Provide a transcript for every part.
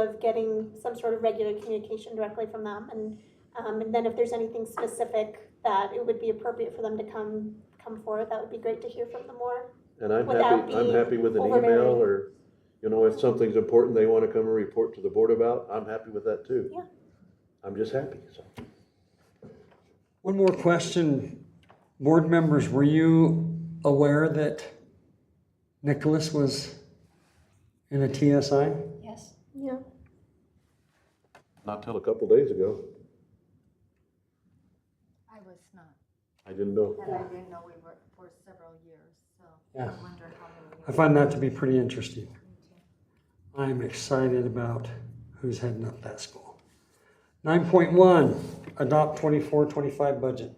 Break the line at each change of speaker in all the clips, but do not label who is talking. of getting some sort of regular communication directly from them. And, um, and then if there's anything specific that it would be appropriate for them to come, come forward, that would be great to hear from them more.
And I'm
Without
happy, I'm
being
happy with an email
overbearing.
or, you know, if something's important they wanna come and report to the board about, I'm happy with that too.
Yeah.
I'm just happy, so.
One more question. Board members, were you aware that Nicholas was in a TSI?
Yes.
Yeah.
Not till a couple days ago,
I was not,
I didn't know.
and I didn't know we were for several years, so I
Yeah.
wonder how many.
I find that to be pretty interesting. I'm excited about who's heading up that school. Nine point one, adopt 24-25 budget.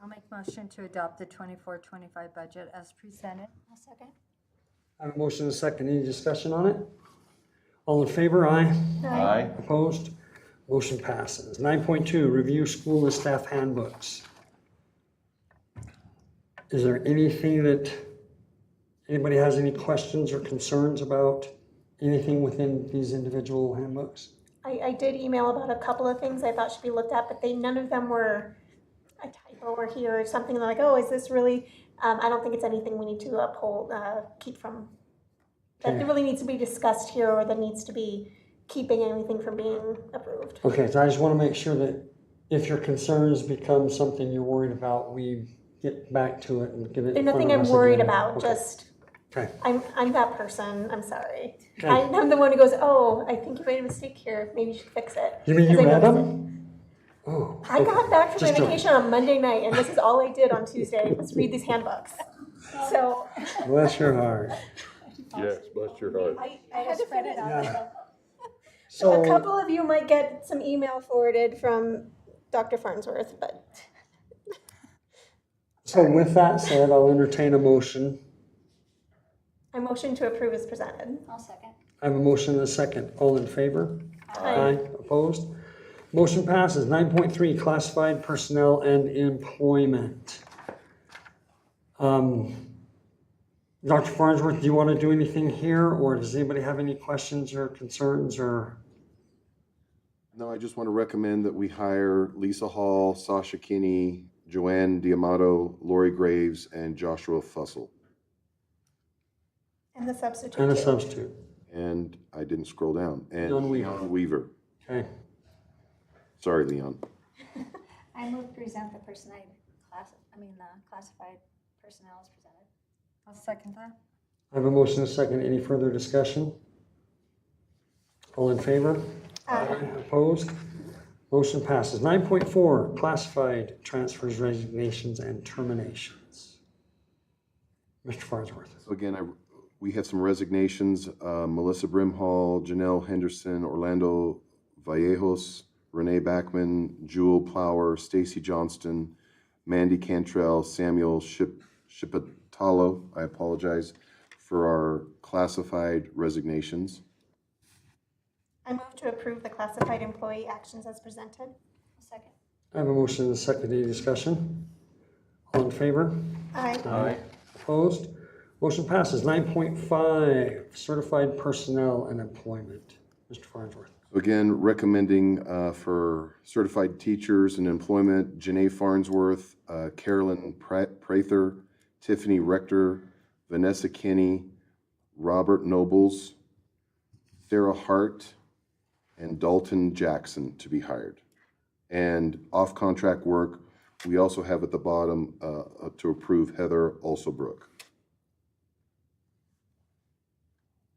I'll make motion to adopt the 24-25 budget as presented. I'll second.
I have a motion and a second. Any discussion on it? All in favor? Aye.
Aye.
Opposed? Motion passes. Nine point two, review school and staff handbooks. Is there anything that, anybody has any questions or concerns about anything within these individual handbooks?
I, I did email about a couple of things I thought should be looked at, but they, none of them were a typo or here or something like, oh, is this really? Um, I don't think it's anything we need to uphold, uh, keep from, that
Okay.
really needs to be discussed here or that needs to be keeping anything from being approved.
Okay, so I just want to make sure that if your concerns become something you're worried about, we get back to it and get it
There's
in front
nothing
of
I'm
us
worried
again.
about,
Okay.
just,
Okay,
I'm, I'm that person, I'm sorry.
Okay.
I- I'm the one who goes, oh, I think you made a mistake here, maybe you should fix it.
you mean you
'Cause I
read
noticed
them? Oh.
it. I got back from my
Just joking.
vacation on Monday night, and this is all I did on Tuesday, was read these handbooks. So,
Bless your heart.
Yes, bless your heart.
I, I had to print it out.
Yeah.
A
So.
couple of you might get some email forwarded from Dr. Farnsworth, but
So with that said, I'll entertain a motion.
I motion to approve as presented.
I'll second.
I have a motion and a second. All in favor? Opposed? Motion passes. Nine point three, classified personnel and employment. Um, Dr. Farnsworth, do you want to do anything here, or does anybody have any questions or concerns or?
No, I just want to recommend that we hire Lisa Hall, Sasha Kinney, Joanne Diamato, Lori Graves, and Joshua Fussell.
And the substitute.
And a
too.
substitute?
And I didn't scroll down. And
Leon Weaver.
Weaver.
Okay.
Sorry, Leon.
I move present the personality class, I mean, the classified personnel is presented.
I'll second that.
I have a motion and a second. Any further discussion? All in favor? Aye. Opposed? Motion passes. Nine point four, classified transfers, resignations, and terminations. Mr. Farnsworth.
So again, I, we had some resignations, uh, Melissa Brimhall, Janelle Henderson, Orlando Vallejos, Renee Backman, Jewel Plower, Stacy Johnston, Mandy Cantrell, Samuel Ship, Shipitalo, I apologize, for our classified resignations.
I move to approve the classified employee actions as presented.
Second.
I have a motion and a second. Any discussion? All in favor?
Aye.
Aye. Opposed? Motion passes. Nine point five, certified personnel and employment. Mr. Farnsworth.
Again, recommending uh, for certified teachers and employment, Janae Farnsworth, uh, Carolyn Pra- Prather, Tiffany Rector, Vanessa Kinney, Robert Nobles, Sarah Hart, and Dalton Jackson to be hired. And off-contract work, we also have at the bottom uh, to approve Heather Olsabrook.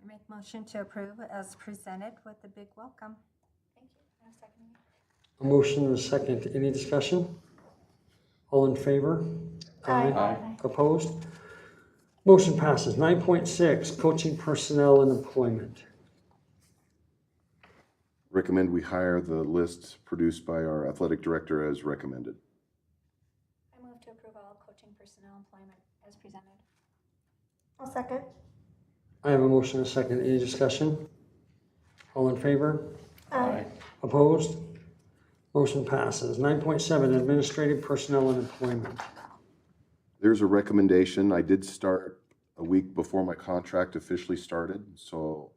I make motion to approve as presented with a big welcome.
Thank you. i second. it.
A motion and a second. Any discussion? All in favor?
Aye.
Opposed? Motion passes. Nine point six, coaching personnel and employment.
Recommend we hire the list produced by our athletic director as recommended.
I move to approve all coaching personnel employment as presented.
I'll second.
I have a motion and a second. Any discussion? All in favor?
Aye.
Opposed? Motion passes. Nine point seven, administrative personnel and employment.
There's a recommendation. I did start a week before my contract officially started, so